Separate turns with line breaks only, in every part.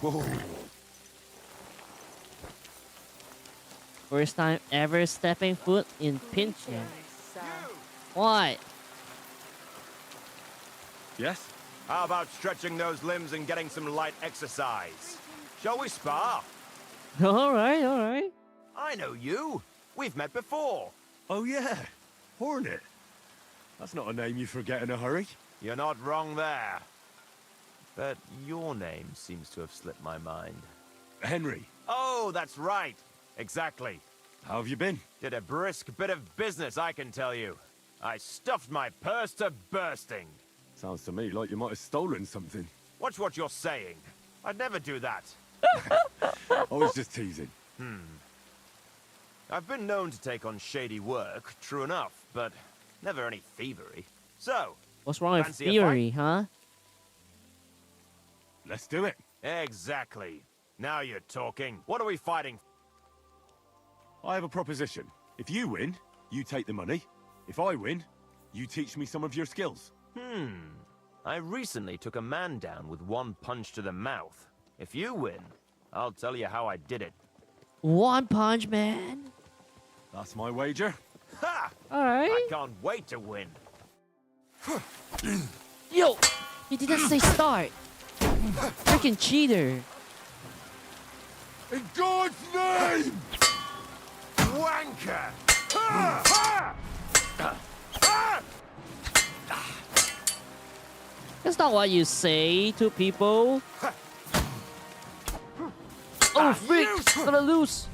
Whoa.
First time ever stepping foot in Pinchon. Why?
Yes?
How about stretching those limbs and getting some light exercise? Shall we spar?
Alright, alright.
I know you. We've met before.
Oh, yeah. Hornet. That's not a name you forget in a hurry.
You're not wrong there. But your name seems to have slipped my mind.
Henry,
Oh, that's right. Exactly.
how have you been?
Did a brisk bit of business, I can tell you. I stuffed my purse to bursting.
Sounds to me like you might have stolen something.
Watch what you're saying. I'd never do that.
I was just teasing.
I've been known to take on shady work, true enough, but never any thievery. So,
What's wrong with
Fancy a fight?
Fury, huh?
Let's do it.
exactly. Now you're talking. What are we fighting?
I have a proposition. If you win, you take the money. If I win, you teach me some of your skills.
I recently took a man down with one punch to the mouth. If you win, I'll tell you how I did it.
One Punch Man.
That's my wager.
Ha! I
Alright.
can't wait to win.
Yo! He didn't say start. Freaking cheater.
In God's name!
Wanker! Ha! Ha! Ha!
That's not what you say to people.
Ah,
Oh, freak!
you-
Gonna lose.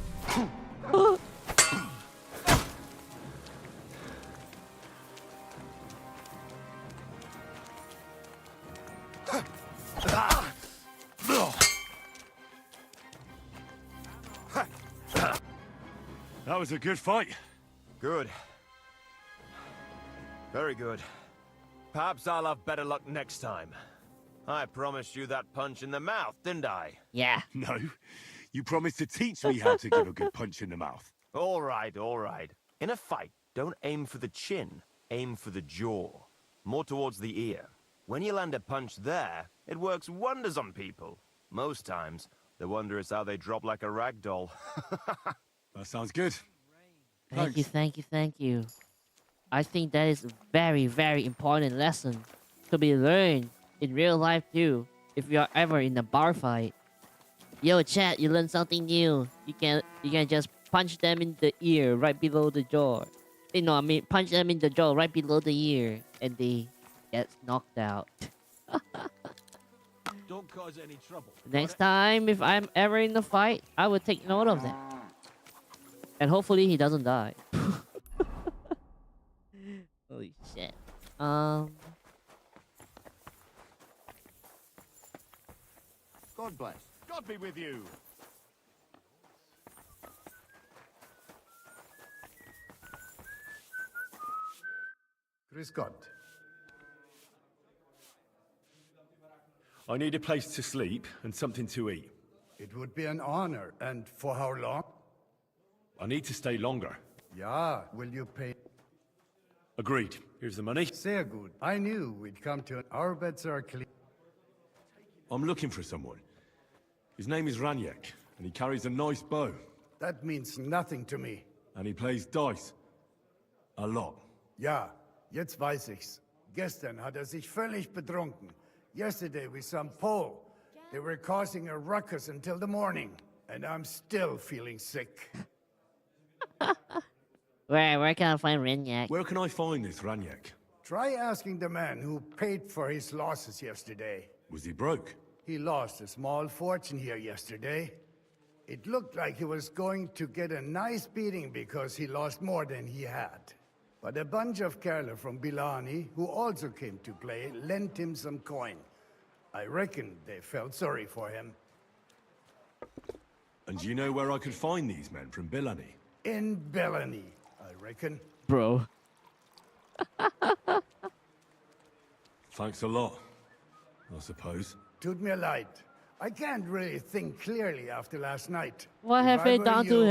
That was a good fight.
Good. Very good. Perhaps I'll have better luck next time. I promised you that punch in the mouth, didn't I?
Yeah.
No, you promised to teach me how to give a good punch in the mouth.
All right, all right. In a fight, don't aim for the chin, aim for the jaw, more towards the ear. When you land a punch there, it works wonders on people. Most times, the wonder is how they drop like a rag doll.
That sounds good.
Thank you,
Thanks.
thank you, thank you. I think that is a very, very important lesson to be learned in real life too. If you are ever in a bar fight, yo chat, you learn something new. You can you can just punch them in the ear right below the jaw. You know, I mean, punch them in the jaw right below the ear, and they get knocked out.
Don't cause any trouble.
Next time, if I'm ever in a fight, I will take note of that. And hopefully he doesn't die. Holy shit. Um,
God bless.
God be with you.
Chris Scott.
I need a place to sleep and something to eat.
It would be an honor. And for how long?
I need to stay longer.
Yeah, will you pay?
Agreed. Here's the money.
Sehr gut. I knew we'd come to an. Our beds are clean.
I'm looking for someone. His name is Ranyek, and he carries a nice bow,
That means nothing to me.
and he plays dice. A lot.
Ja, jetzt weiß ich's. Gestern hat er sich völlig betrunken. Yesterday with some Pole. They were causing a ruckus until the morning. And I'm still feeling sick.
where where can I find Renyak?
Where can I find this Ranyek?
Try asking the man who paid for his losses yesterday.
Was he broke?
He lost a small fortune here yesterday. It looked like he was going to get a nice beating because he lost more than he had. But a bunch of Kerala from Bilani, who also came to play, lent him some coin. I reckon they felt sorry for him.
And do you know where I could find these men from Bilani?
In Bilani, I reckon.
Bro.
Thanks a lot. I suppose.
Tut mir leid. I can't really think clearly after last night.
What
If
have
I
they
were
done to
you-